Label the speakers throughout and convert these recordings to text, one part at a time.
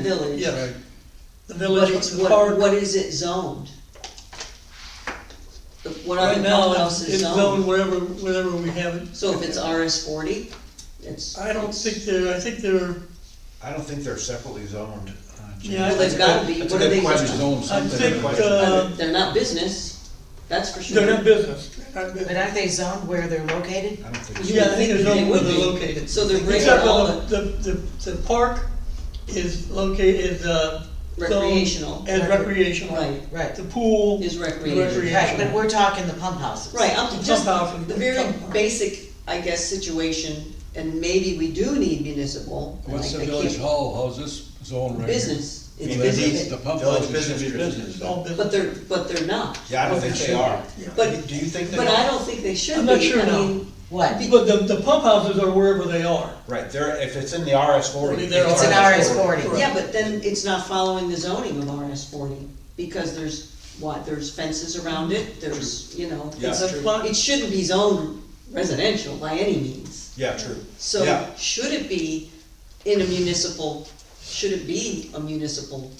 Speaker 1: village.
Speaker 2: Yeah, the
Speaker 1: What
Speaker 2: village,
Speaker 1: is,
Speaker 2: the
Speaker 1: what,
Speaker 2: park,
Speaker 1: what is it zoned? The- What
Speaker 2: right
Speaker 1: other
Speaker 2: now,
Speaker 1: pump house
Speaker 2: it's
Speaker 1: is
Speaker 2: it's
Speaker 1: zoned?
Speaker 2: zoned wherever, wherever we have it.
Speaker 1: So if it's RS forty, it's.
Speaker 2: I don't think they're, I think they're,
Speaker 3: I don't think they're separately zoned. uh, James.
Speaker 2: Yeah, I
Speaker 1: Well, they've gotta be,
Speaker 4: That's a
Speaker 1: what are they?
Speaker 4: good question, zone
Speaker 2: I
Speaker 4: something.
Speaker 2: think,
Speaker 4: but-
Speaker 2: uh,
Speaker 1: They're not business, that's for sure.
Speaker 2: they're not business, they're not
Speaker 5: But
Speaker 2: business.
Speaker 5: aren't they zoned where they're located?
Speaker 3: I don't think,
Speaker 1: You
Speaker 2: Yeah, I
Speaker 1: would
Speaker 2: think they're zoned where
Speaker 1: would
Speaker 2: they're
Speaker 1: be.
Speaker 2: located.
Speaker 1: So they're bringing
Speaker 2: Except
Speaker 1: all
Speaker 2: for
Speaker 1: the
Speaker 2: the, the, the, the park is located, is, uh. zoned
Speaker 1: recreational,
Speaker 2: As recreational.
Speaker 1: right,
Speaker 5: Right,
Speaker 2: The pool.
Speaker 1: is recreational.
Speaker 2: Recre-
Speaker 5: right, but we're talking the pump houses.
Speaker 1: Right, uh, I'm
Speaker 2: Pump
Speaker 1: just,
Speaker 2: house and
Speaker 1: the very
Speaker 2: pump house.
Speaker 1: basic, I guess, situation, and maybe we do need municipal. and
Speaker 4: What's
Speaker 1: I-
Speaker 4: the
Speaker 1: I
Speaker 4: village
Speaker 1: can't-
Speaker 4: hall, how's this zone right here?
Speaker 1: Business, it's
Speaker 3: Mean
Speaker 4: It's
Speaker 1: business,
Speaker 4: The pump
Speaker 3: Village
Speaker 4: house is
Speaker 3: business
Speaker 4: just
Speaker 3: district.
Speaker 4: business.
Speaker 2: All business.
Speaker 1: but they're, but they're not.
Speaker 3: yeah, I don't think they are.
Speaker 1: But-
Speaker 3: Do you think they
Speaker 1: But I
Speaker 3: are?
Speaker 1: don't think they should be.
Speaker 2: I'm not sure
Speaker 1: I
Speaker 2: now.
Speaker 1: mean,
Speaker 5: What?
Speaker 1: be-
Speaker 2: But the, the pump houses are wherever they are.
Speaker 3: Right, they're, if it's in the RS forty.
Speaker 2: They're
Speaker 5: It's an RS forty.
Speaker 2: Right.
Speaker 1: Yeah, but then it's not following the zoning of RS forty, because there's, what, there's fences around it, there's, you know.
Speaker 3: Yeah,
Speaker 1: it's-
Speaker 3: true.
Speaker 1: It shouldn't be zoned residential by any means.
Speaker 3: Yeah, true.
Speaker 1: So
Speaker 3: Yeah.
Speaker 1: should it be in a municipal, should it be a municipal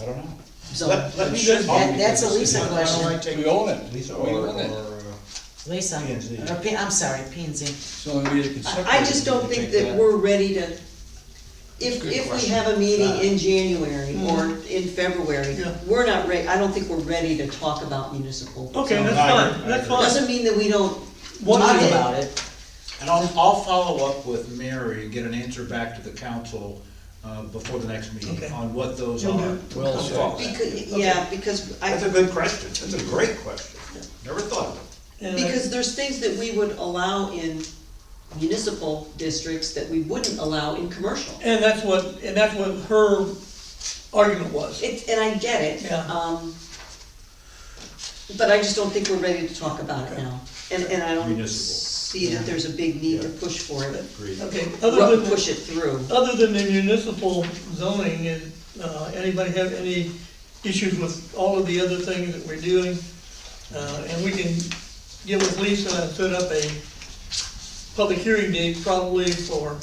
Speaker 3: I don't know.
Speaker 1: zone?
Speaker 3: Let, let me
Speaker 2: That-
Speaker 3: just.
Speaker 5: that's a Lisa question.
Speaker 4: We own it.
Speaker 3: Lisa
Speaker 4: We
Speaker 3: or, or,
Speaker 4: own it.
Speaker 3: uh,
Speaker 5: Lisa,
Speaker 3: P and Z.
Speaker 5: or P, I'm sorry, P and Z.
Speaker 4: It's the only way they can separate.
Speaker 1: I, I just
Speaker 4: it,
Speaker 1: don't
Speaker 4: they
Speaker 1: think
Speaker 4: take
Speaker 1: that we're ready to, if,
Speaker 4: Good
Speaker 1: if we
Speaker 4: question.
Speaker 1: have a
Speaker 3: Uh,
Speaker 1: meeting in January or in February,
Speaker 2: Yeah.
Speaker 1: we're not ready, I don't think we're ready to talk about municipal.
Speaker 2: Okay,
Speaker 1: zoning.
Speaker 2: that's
Speaker 3: I agree,
Speaker 2: fine,
Speaker 3: I
Speaker 2: that's
Speaker 3: agree.
Speaker 2: fine.
Speaker 1: Doesn't mean that we don't
Speaker 2: One
Speaker 5: Talk
Speaker 2: thing-
Speaker 5: about it.
Speaker 3: And I'll, I'll follow up with Mary and get an answer back to the council, uh, before the next
Speaker 2: Okay.
Speaker 3: meeting on what those
Speaker 2: You'll
Speaker 3: are.
Speaker 2: do.
Speaker 4: Well
Speaker 3: I'll
Speaker 4: said.
Speaker 3: follow that.
Speaker 1: Because, yeah, because
Speaker 3: That's a
Speaker 1: I,
Speaker 3: good question, that's a great question, never thought of it.
Speaker 2: and I-
Speaker 1: because there's things that we would allow in municipal districts that we wouldn't allow in commercial.
Speaker 2: And that's what, and that's what her argument was.
Speaker 1: It, and I get it,
Speaker 2: Yeah.
Speaker 1: um, but I just don't think we're ready to talk about it now. And, and I don't
Speaker 3: Municipal.
Speaker 1: see that there's a big need to
Speaker 3: Yeah.
Speaker 1: push for it,
Speaker 3: Agreed.
Speaker 2: Okay, other
Speaker 1: ru-
Speaker 2: than,
Speaker 1: push it through.
Speaker 2: other than the municipal zoning, is, uh, anybody have any issues with all of the other things that we're doing? Uh, and we can get with Lisa and set up a public hearing date probably for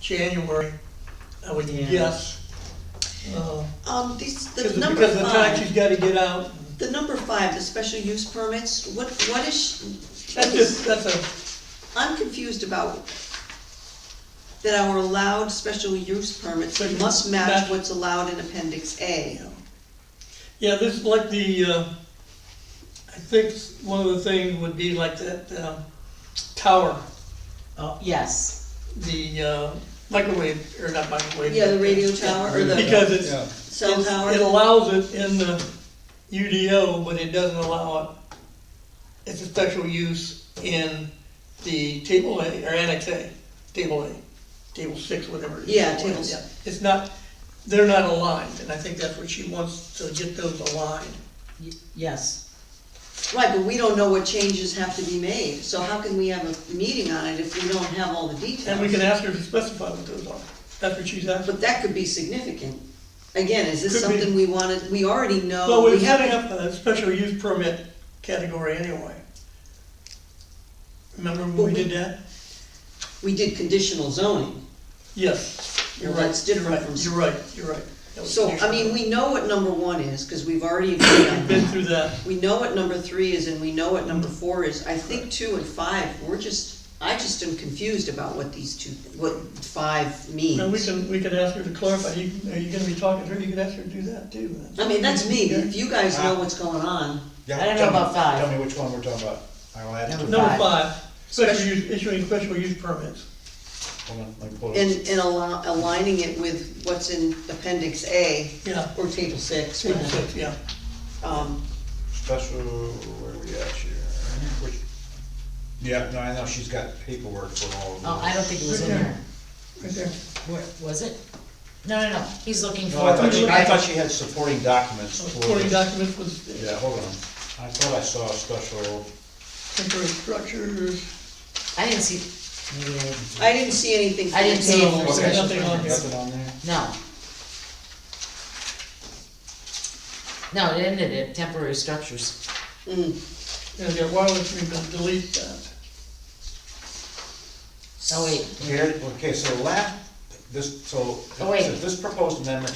Speaker 2: January, I would
Speaker 5: Yeah.
Speaker 2: guess. Uh,
Speaker 1: Um, these, the
Speaker 2: Because,
Speaker 1: number
Speaker 2: because of the time she's
Speaker 1: five,
Speaker 2: gotta get out,
Speaker 1: the number five, the special use permits, what, what is?
Speaker 2: that's just, that's a,
Speaker 1: I'm confused about that our allowed special use permits
Speaker 2: But
Speaker 1: must match
Speaker 2: that-
Speaker 1: what's allowed in appendix A.
Speaker 2: yeah, this is like the, uh, I think one of the things would be like that, um, tower,
Speaker 5: Oh, yes,
Speaker 2: the, uh, microwave, or not microwave.
Speaker 1: Yeah, the radio
Speaker 2: but-
Speaker 1: tower or the
Speaker 2: Because
Speaker 4: Yeah.
Speaker 2: it's,
Speaker 1: cell
Speaker 2: it
Speaker 1: tower,
Speaker 2: allows it in the UDO, but it doesn't allow it, it's a special use in the table A, or annex A, table A, table six, whatever. it is.
Speaker 1: Yeah, table s-
Speaker 2: Yeah. It's not, they're not aligned, and I think that's what she wants, to get those aligned.
Speaker 5: y- yes.
Speaker 1: right, but we don't know what changes have to be made, so how can we have a meeting on it if we don't have all the
Speaker 2: And we
Speaker 1: details?
Speaker 2: can ask her to specify what those are, that's what she's asking.
Speaker 1: But that could be significant. Again, is this
Speaker 2: Could be.
Speaker 1: something we wanted, we already
Speaker 2: Well,
Speaker 1: know,
Speaker 2: we're
Speaker 1: we
Speaker 2: setting
Speaker 1: have,
Speaker 2: up a special use permit category anyway. Remember
Speaker 1: But
Speaker 2: when we
Speaker 1: we-
Speaker 2: did that?
Speaker 1: we did conditional zoning.
Speaker 2: Yes, you're
Speaker 1: Well,
Speaker 2: right.
Speaker 1: that's different
Speaker 2: Right,
Speaker 1: from-
Speaker 2: You're right, you're right. That was
Speaker 1: So, I
Speaker 2: conditional.
Speaker 1: mean, we know what number one is, cause we've already agreed on that.
Speaker 2: We've Been through that,
Speaker 1: we know what number three is and we know what number four is. I think two and five, we're just, I just am confused about what these two, what five
Speaker 2: and we
Speaker 1: means.
Speaker 2: can, we could ask her to clarify, you, are you gonna be talking to her, you could ask her to do that too. then.
Speaker 1: I mean, that's me, but if you guys know what's going on,
Speaker 3: Yeah,
Speaker 5: I don't know
Speaker 3: tell me-
Speaker 5: about five.
Speaker 3: Tell me which one we're talking about. I'll add it to.
Speaker 5: Number
Speaker 2: Number
Speaker 5: Five.
Speaker 2: five, special use, issuing special use permits.
Speaker 3: Hold on, let me pull it.
Speaker 1: and, and allow, aligning it with what's in appendix A
Speaker 2: Yeah,
Speaker 1: or table six,
Speaker 2: table
Speaker 1: whatever.
Speaker 2: six, yeah.
Speaker 1: Um,
Speaker 3: Special, where are we at here? Which- Yeah, no, I know she's got paperwork for all of those.
Speaker 5: Oh, I don't think it was in there.
Speaker 2: Right there.
Speaker 5: Where, was it? No, no, no, he's looking for.
Speaker 3: No, I thought she, I thought she had supporting documents for
Speaker 2: Supporting
Speaker 3: this.
Speaker 2: documents was
Speaker 3: Yeah, hold on. I thought I saw a special,
Speaker 2: temporary structures.
Speaker 5: I didn't see, maybe I didn't.
Speaker 1: I didn't see anything for
Speaker 5: I didn't see
Speaker 1: the
Speaker 5: it for
Speaker 3: Okay.
Speaker 5: special
Speaker 2: Nothing on
Speaker 5: permits.
Speaker 3: nothing on there?
Speaker 5: No. No, it ended at temporary structures.
Speaker 1: table. Mm.
Speaker 2: Yeah, yeah, why would we not delete that?
Speaker 5: Oh, wait,
Speaker 3: Here, okay, so the last this, so,
Speaker 5: Oh, wait.
Speaker 3: so
Speaker 5: Oh,
Speaker 3: this proposed amendment